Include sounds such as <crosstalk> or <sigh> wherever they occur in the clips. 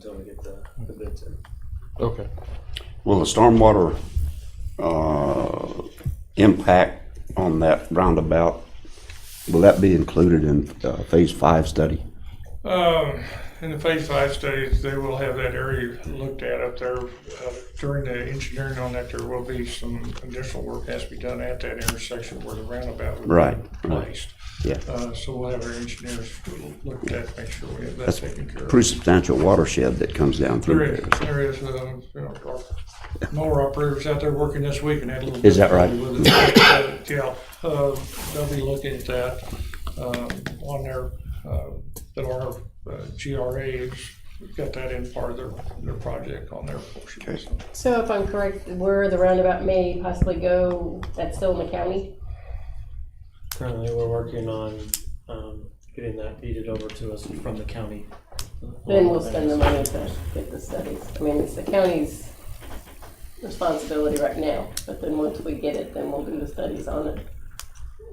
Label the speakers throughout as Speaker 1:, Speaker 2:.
Speaker 1: until we get the, the bids in.
Speaker 2: Okay.
Speaker 3: Will the stormwater, uh, impact on that roundabout, will that be included in, uh, phase five study?
Speaker 4: Um, in the phase five studies, they will have that area looked at up there. Uh, During the engineering on that, there will be some additional work has to be done at that intersection where the roundabout
Speaker 3: Right,
Speaker 4: would be
Speaker 3: right.
Speaker 4: placed.
Speaker 3: Yeah.
Speaker 4: Uh, so we'll have our engineers look at that, make sure we have that
Speaker 3: That's
Speaker 4: taken care of.
Speaker 3: pretty substantial watershed that comes down
Speaker 4: There
Speaker 3: through
Speaker 4: is,
Speaker 3: there.
Speaker 4: there is, uh, you know, our mower operators out there working this week and had a little.
Speaker 3: Is that right?
Speaker 4: difficulty with it. Yeah, uh, they'll be looking at that, um, on their, uh, that our uh, GRA has got that in part of their, their project on their portion.
Speaker 3: Okay.
Speaker 5: So if I'm correct, where the roundabout may possibly go, that's still in the county?
Speaker 1: Currently, we're working on, um, getting that deeded over to us from the county.
Speaker 5: Then we'll spend the money to get the studies. I mean, it's the county's responsibility right now, but then once we get it, then we'll do the studies on it.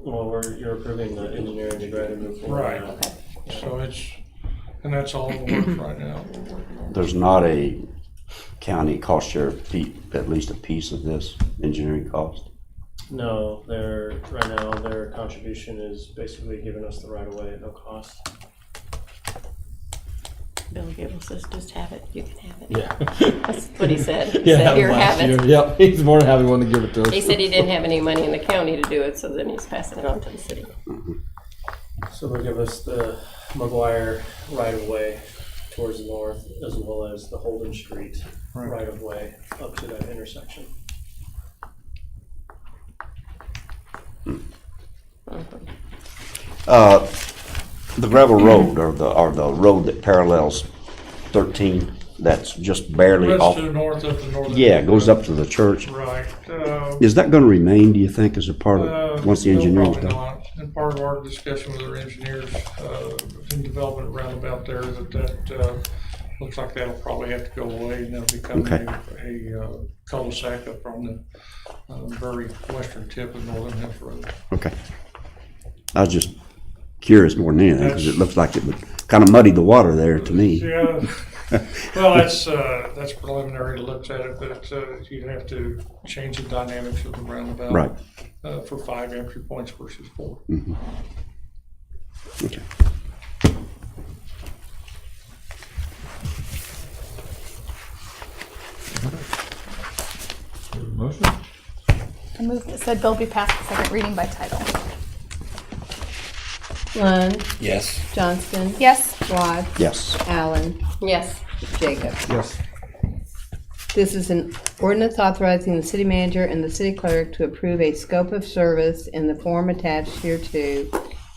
Speaker 1: Well, we're, you're approving the engineering to go ahead and move forward.
Speaker 4: Right.
Speaker 1: now.
Speaker 5: Okay.
Speaker 4: So it's, and that's all the work right now. we're working on.
Speaker 3: There's not a county cost share, pe- at least a piece of this engineering cost?
Speaker 1: No, they're, right now, their contribution is basically giving us the right of way at no cost.
Speaker 6: Bill Gable says, just have it, you can have it.
Speaker 2: <laughs> Yeah.
Speaker 6: That's what he said. He
Speaker 2: Yeah.
Speaker 6: said, here,
Speaker 2: last
Speaker 6: have it.
Speaker 2: year. Yep. He's more than happy one to give it to us.
Speaker 5: He said he didn't have any money in the county to do it, so then he's passing it on to the city.
Speaker 1: So they'll give us the McGuire right of way towards the north, as well as the Holden Street
Speaker 4: Right.
Speaker 1: right of way up to that intersection.
Speaker 3: Uh, the gravel road or the, or the road that parallels thirteen, that's just barely
Speaker 4: That's
Speaker 3: off.
Speaker 4: to the north of the northern.
Speaker 3: Yeah, it goes up to the church.
Speaker 4: Right, uh,
Speaker 3: Is that gonna remain, do you think, as a part
Speaker 4: Uh,
Speaker 3: of, once the
Speaker 4: no,
Speaker 3: engineering's
Speaker 4: probably
Speaker 3: done?
Speaker 4: not. And part of our discussion with our engineers, uh, in development roundabout there, that, that, uh, looks like that'll probably have to go away and that'll become
Speaker 3: Okay.
Speaker 4: a, a uh, cul-de-sac up on the, uh, very western tip of Northern Hills Road.
Speaker 3: Okay. I was just curious more than anything, because it looks like it would kinda muddy the water there to me.
Speaker 4: Yeah, <laughs>
Speaker 3: <laughs>
Speaker 4: well, that's, uh, that's preliminary looks at it, but, uh, you have to change the dynamics of the roundabout.
Speaker 3: Right.
Speaker 4: Uh, for five entry points versus four.
Speaker 3: Okay.
Speaker 2: Motion?
Speaker 7: I move that said bill be passed the second reading by title.
Speaker 8: Lund,
Speaker 2: Yes.
Speaker 8: Johnston,
Speaker 7: Yes.
Speaker 8: Watts,
Speaker 3: Yes.
Speaker 8: Allen,
Speaker 5: Yes,
Speaker 8: Jacob.
Speaker 2: Yes.
Speaker 8: This is an ordinance authorizing the city manager and the city clerk to approve a scope of service in the form attached hereto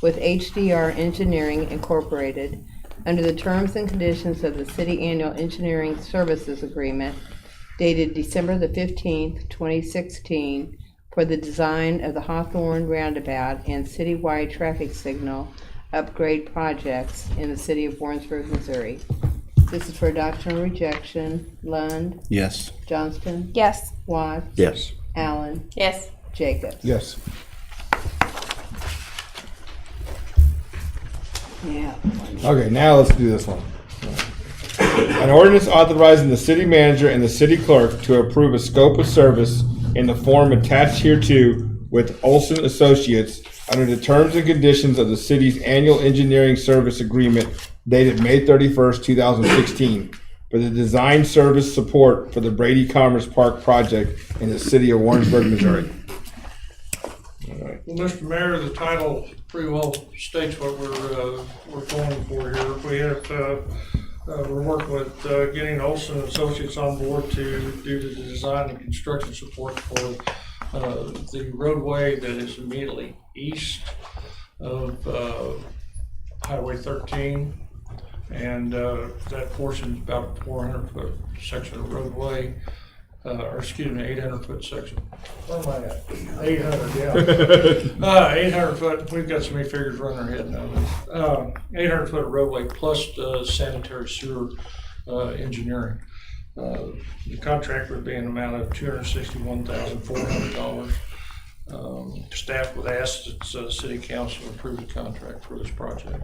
Speaker 8: with HDR Engineering Incorporated under the terms and conditions of the City Annual Engineering Services Agreement dated December the fifteenth, twenty sixteen, for the design of the Hawthorne Roundabout and citywide traffic signal upgrade projects in the city of Warrensburg, Missouri. This is for adoption or rejection. Lund,
Speaker 2: Yes.
Speaker 8: Johnston,
Speaker 7: Yes.
Speaker 8: Watts,
Speaker 3: Yes.
Speaker 8: Allen,
Speaker 5: yes.
Speaker 8: Jacobs.
Speaker 2: Yes.
Speaker 8: Yeah.
Speaker 2: Okay, now let's do this one. An ordinance authorizing the city manager and the city clerk to approve a scope of service in the form attached hereto with Olson Associates under the terms and conditions of the city's annual engineering service agreement dated May thirty-first, two thousand sixteen for the design service support for the Brady Commerce Park project in the city of Warrensburg, Missouri.
Speaker 4: Well, Mr. Mayor, the title pretty well states what we're, uh, we're going for here. We have, uh, uh, we're working with, uh, getting Olson Associates on board to do the design and construction support for, uh, the roadway that is immediately east of, uh, Highway thirteen. And, uh, that portion's about a four hundred foot section of roadway, uh, or excuse me, eight hundred foot section. Where am I at? Eight hundred, yeah. Uh, eight hundred foot, we've got so many figures running our head now. Um, eight hundred foot roadway plus uh, sanitary sewer, uh, engineering. Uh, The contract would be an amount of two hundred sixty-one thousand, four hundred dollars. Um, Staff would ask that, uh, city council approve the contract for this project.